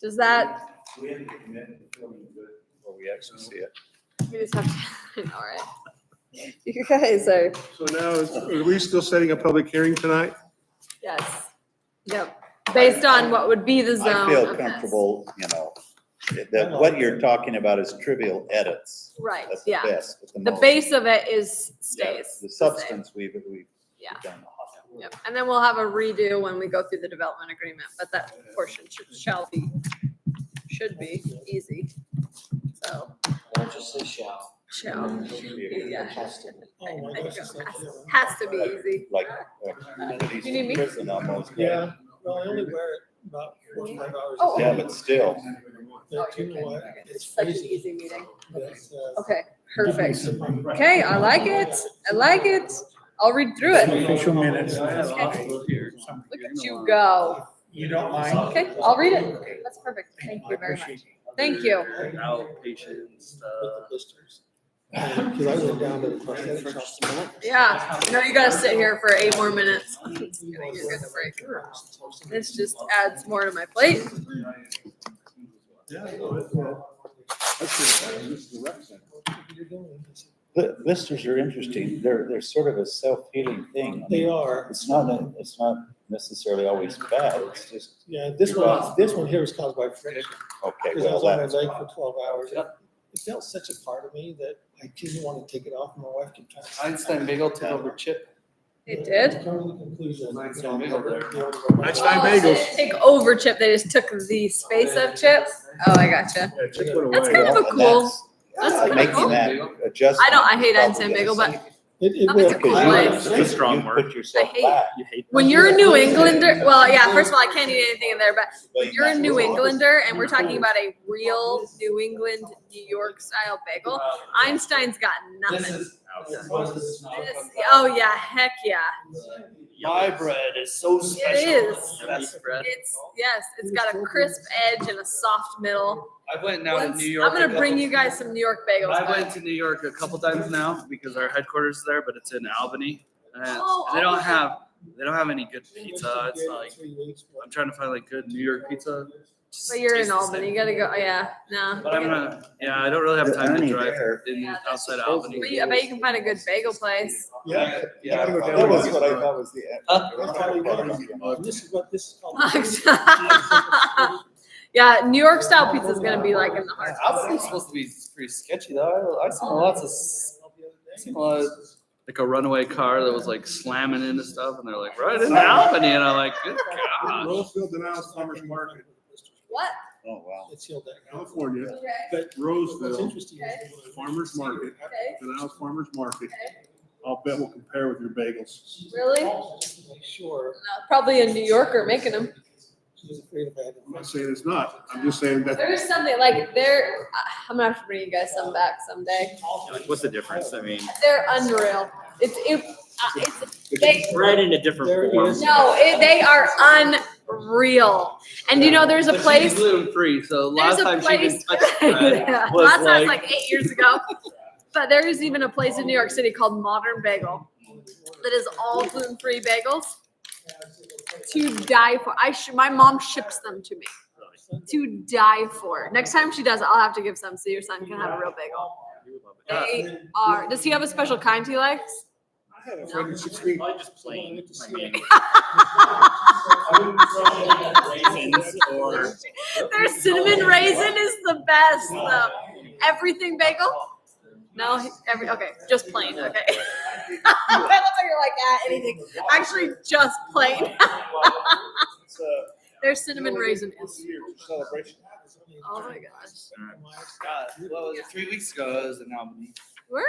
Does that, We have to commit before we do it. Well, we actually see it. we just have to, all right. You guys are, So now, is- are we still setting a public hearing tonight? yes, yep, based on what would be the zone I feel of this. comfortable, you know, that what you're talking about is trivial edits. Right, That's the yeah. best. at The moment. base of it is Yeah, stays. The the same. substance we've, we've Yeah. done. Yep, and then we'll have a redo when we go through the development agreement, but that portion should- shall be, should be easy. So, Don't just say shall. shall, Yeah. It has to be. Oh, I I don't, has- has to be easy. Like, uh, communities You need me? in prison almost. Yeah, well, I only wear it about forty-five hours Oh, a Yeah, day. but still, But you know what? It's It's such an crazy. easy meeting. That's, uh, Okay, perfect. different. Okay, I like it. I like it. I'll read through it. Official minutes. Okay. Something Look at you go. You don't mind? Okay, I'll read it. That's perfect. Thank you very much. Thank you. Outpatient, With uh, the blisters. Uh, Cause I went down to the prosthetic shop. Yeah, you know, you gotta sit here for eight more minutes. It's gonna get good break. This just adds more to my plate. bl- blisters are interesting. They're, they're sort of a self-healing thing. I They mean, are, It's not, a- it's not necessarily always bad. It's just, yeah, this one, this one here was caused by friction, okay, cause I well, was on my that's. leg for twelve hours. It felt such a part of me that I didn't wanna take it off, and my wife kept trying to. Einstein Bagel took over Chip. It did? Come to the conclusion. Einstein Bagel there. Einstein Oh, bagels. so they Take over Chip. They just took the space of Chip. Oh, I gotcha. Yeah, Chip went That's away. kind of a and cool- that's- that's uh, kinda cool. Making that adjustment. I don't- I hate is probably Einstein gonna Bagel, but save you. It, it That makes Oh, will. a Because cool you- place. you It's a strong put word. yourself I hate back. When you're a New Englander, well, yeah, first of all, I can't eat anything in there, but if you're a New Englander and we're talking about a real New England, New York style bagel. Einstein's got This nothing. is outside. This- oh, yeah, heck yeah. My bread is so special. is. Best bread. It's, yes, it's got a crisp edge and a soft middle. I went down to Once- New I'm York. gonna a bring couple- you guys some New York bagels. I went but- to New York a couple times now because our headquarters is there, but it's in Albany. And Oh, they don't Albany. have, they don't have any good pizza. It's like, Three weeks, but- I'm trying to find like good New York pizza. Just But you're tastes in the same. Albany, you gotta go, yeah, no. But I'm gonna, yeah, I don't really have The time to Ernie drive there. in Yeah, that's outside just- Albany. But you, I bet you can find a good bagel place. Yeah. Yeah, Gotta go down that to was the what I restaurant. thought was the. Huh? That's how we want it. This is what this is called. Yeah, New York style pizza's gonna be like in the heart. Albany's supposed to be pretty sketchy though. I, I seen lots of, s- seen a lot of, like a runaway car that was like slamming into stuff and they're like, right in Albany. And I'm like, good God. Rosefield denies farmer's market, What? Oh, wow. It's sealed down. California, Okay, What's Roseville, interesting is. farmer's market, okay, denies farmer's market. okay. I'll bet will compare with your bagels. Really? No, Make sure, Probably a New Yorker making them. she was afraid if I had. I'm not saying it's not. I'm just saying that There's something like they're, I- I'm gonna have to bring you guys some back someday. to- What's the difference? I mean, They're unreal. It's, it, uh, it's, they, bread in a different There it form. is. no, it, they are unreal. And you know, there's a But she's place. Gluten free, so There's last a time she didn't place. touch bread. Yeah, was Last time was like- like eight years ago. But there is even a place in New York City called Modern Bagel that is all gluten-free bagels to die for. I sh- my mom ships them to me to die for. Next time she does, I'll have to give some so your son can have a real bagel. Yeah. They are. Does he have a special kind he likes? I had a friend in sixteen, Probably just plain. I mean, raisins or- Their cinnamon raisin is the best. though. uh, everything bagel. No, he- every okay, just plain. Okay. By the time you're like, ah, anything. Actually, just plain. it's a Their cinnamon raisin is. celebration. Oh my gosh. God, what was it, three weeks ago, I was in Albany. Where?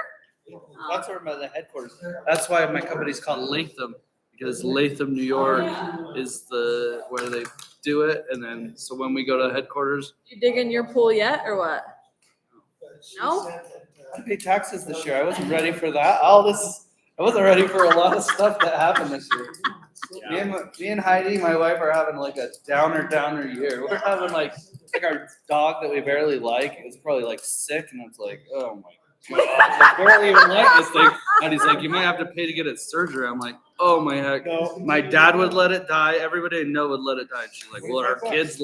That's where my the headquarters. That's why my company's called Latham because Latham, New York, Oh, is the where they do it. And then so when we go to headquarters, You dig in your pool yet, or what? No? uh, I had to pay taxes this year. I wasn't ready for that. All this, I wasn't ready for a lot of stuff that happened this year. Me and, my- me and Heidi, my wife, are having like a downer, downer year. We're having like, it's like our dog that we barely like is probably like sick, and it's like, oh my god, I barely even like this thing. And he's like, you might have to pay to get it surgery. I'm like, oh my heck. No. My dad would let it die. Everybody I know would let it die. And she's like, well, our kids